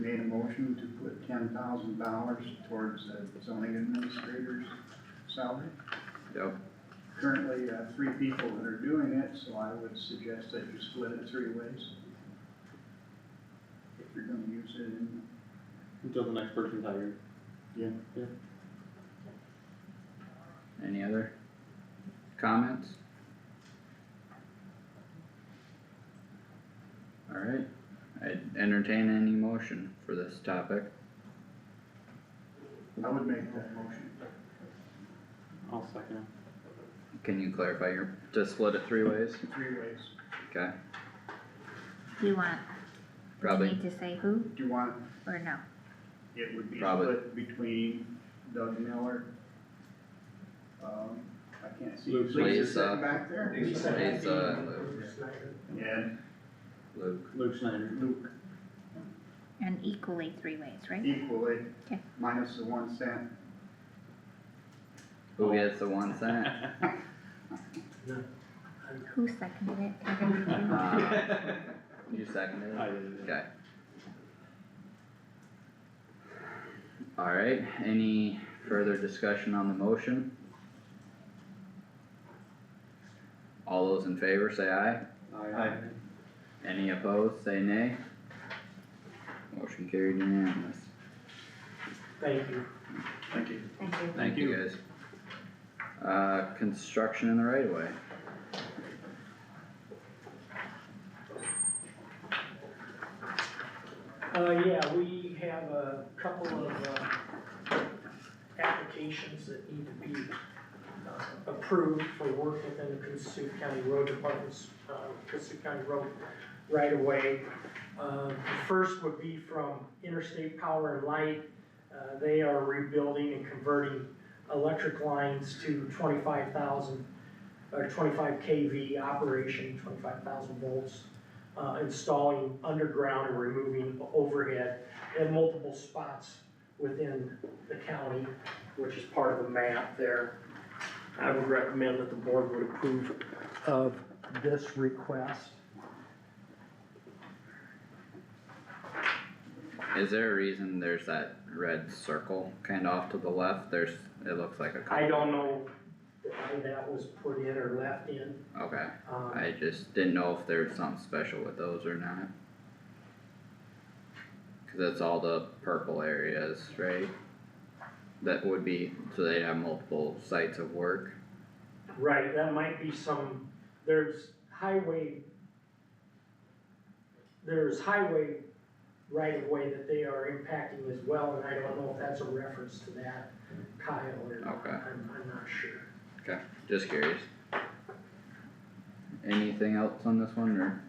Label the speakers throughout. Speaker 1: motion to put ten thousand dollars towards the zoning administrator's salary.
Speaker 2: Yep.
Speaker 1: Currently, uh, three people that are doing it, so I would suggest that you split it three ways. If you're gonna use it in,
Speaker 3: Until the next person's hired.
Speaker 2: Any other comments? Alright, I'd entertain any motion for this topic.
Speaker 1: I would make that motion.
Speaker 3: I'll second it.
Speaker 2: Can you clarify your, to split it three ways?
Speaker 1: Three ways.
Speaker 2: Okay,
Speaker 4: Do you want, do you
Speaker 2: probably,
Speaker 4: need to say who
Speaker 1: Do you want,
Speaker 4: or no?
Speaker 1: it would be
Speaker 2: Probably.
Speaker 1: split between Doug Miller. Um, I can't see.
Speaker 3: Luke
Speaker 1: Lisa's
Speaker 2: Lisa.
Speaker 1: sitting Back there.
Speaker 2: Lisa. Lisa, Luke.
Speaker 1: And
Speaker 2: Luke,
Speaker 3: Luke Snyder.
Speaker 1: Luke
Speaker 4: And equally three ways, right?
Speaker 1: equally,
Speaker 4: Okay.
Speaker 1: minus the one cent.
Speaker 2: who gets the one cent?
Speaker 4: Who seconded it?
Speaker 2: Uh, You seconded it?
Speaker 3: I did it.
Speaker 2: Okay. Alright, any further discussion on the motion? All those in favor say aye,
Speaker 3: Aye.
Speaker 2: any opposed say nay. Motion carried unanimous,
Speaker 5: Thank you.
Speaker 1: Thank you.
Speaker 4: Thank you.
Speaker 2: thank you guys. Uh, construction in the right of way,
Speaker 5: Uh, yeah, we have a couple of, uh, applications that need to be uh, approved for work within the Cassup County Road Department's, uh, Cassup County Road right away. Uh, the first would be from Interstate Power and Light. Uh, they are rebuilding and converting electric lines to twenty-five thousand, or twenty-five KV operation, twenty-five thousand volts. uh, installing underground and removing overhead in multiple spots within the county, which is part of the map there. I would recommend that the board would approve of this request.
Speaker 2: is there a reason there's that red circle kinda off to the left, there's, it looks like a
Speaker 5: I
Speaker 2: couple,
Speaker 5: don't know why that was put in or left in.
Speaker 2: okay,
Speaker 5: Um,
Speaker 2: I just didn't know if there was something special with those or not. Cause that's all the purple areas, right? That would be, so they have multiple sites of work,
Speaker 5: Right, that might be some, there's highway, there's highway right of way that they are impacting as well, and I don't know if that's a reference to that, Kyle, or not,
Speaker 2: Okay.
Speaker 5: I'm, I'm not sure.
Speaker 2: just curious. Anything else on this one, or?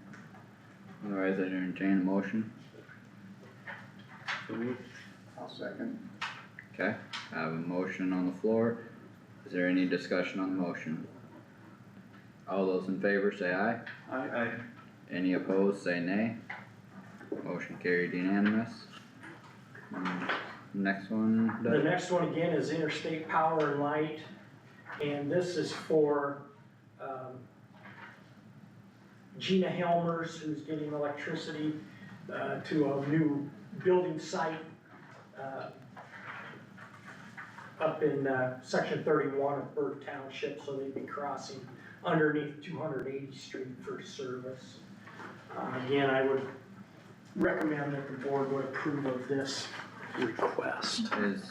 Speaker 2: Otherwise, I'd entertain a motion,
Speaker 3: So moved.
Speaker 1: I'll second.
Speaker 2: okay, I have a motion on the floor, is there any discussion on the motion? All those in favor say aye,
Speaker 1: I.
Speaker 2: any opposed say nay. Motion carried unanimous. Um, Next one,
Speaker 5: The
Speaker 2: Doug?
Speaker 5: next one again is Interstate Power and Light, and this is for, um, Gina Helmers, who's getting electricity, uh, to a new building site, uh, up in, uh, section thirty-one of Burke Township, so they'd be crossing underneath two hundred eighty street for service. Uh, again, I would recommend that the board would approve of this request.
Speaker 2: is,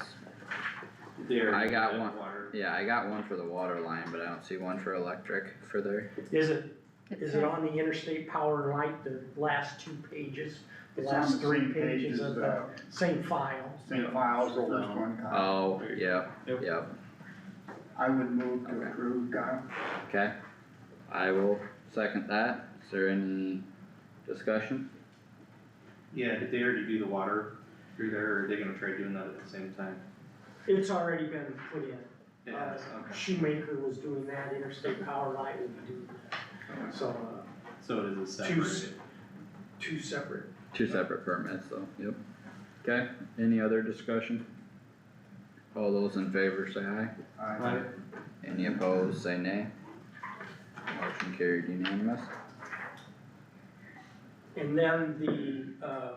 Speaker 3: There.
Speaker 2: I got one.
Speaker 3: Water.
Speaker 2: yeah, I got one for the water line, but I don't see one for electric for there.
Speaker 5: Is it, is it on the interstate power and light, the last two pages, the
Speaker 1: It's on the
Speaker 5: last three
Speaker 1: same
Speaker 5: pages
Speaker 1: pages,
Speaker 5: of the
Speaker 1: uh,
Speaker 5: same file?
Speaker 1: same files, the
Speaker 3: Scroll
Speaker 1: first
Speaker 3: down.
Speaker 1: one, Kyle.
Speaker 2: Oh,
Speaker 3: Ah, There you
Speaker 2: yep,
Speaker 3: Yep.
Speaker 2: yep,
Speaker 1: I would move to
Speaker 2: Okay.
Speaker 1: approve, Kyle.
Speaker 2: okay. I will second that. Is there any discussion?
Speaker 6: Yeah, did they already do the water through there, or are they gonna try doing that at the same time?
Speaker 5: It's already been put in.
Speaker 6: It
Speaker 5: Uh,
Speaker 6: has, okay,
Speaker 5: Shoemaker was doing that, interstate power and light would be doing that. So, uh,
Speaker 6: so it is a
Speaker 5: Two s-
Speaker 6: separate,
Speaker 5: two separate
Speaker 2: Two separate permits, so, yep. Okay, any other discussion? All those in favor say aye.
Speaker 1: I.
Speaker 2: Any opposed, say nay. Motion carried unanimous.
Speaker 5: And then the, uh,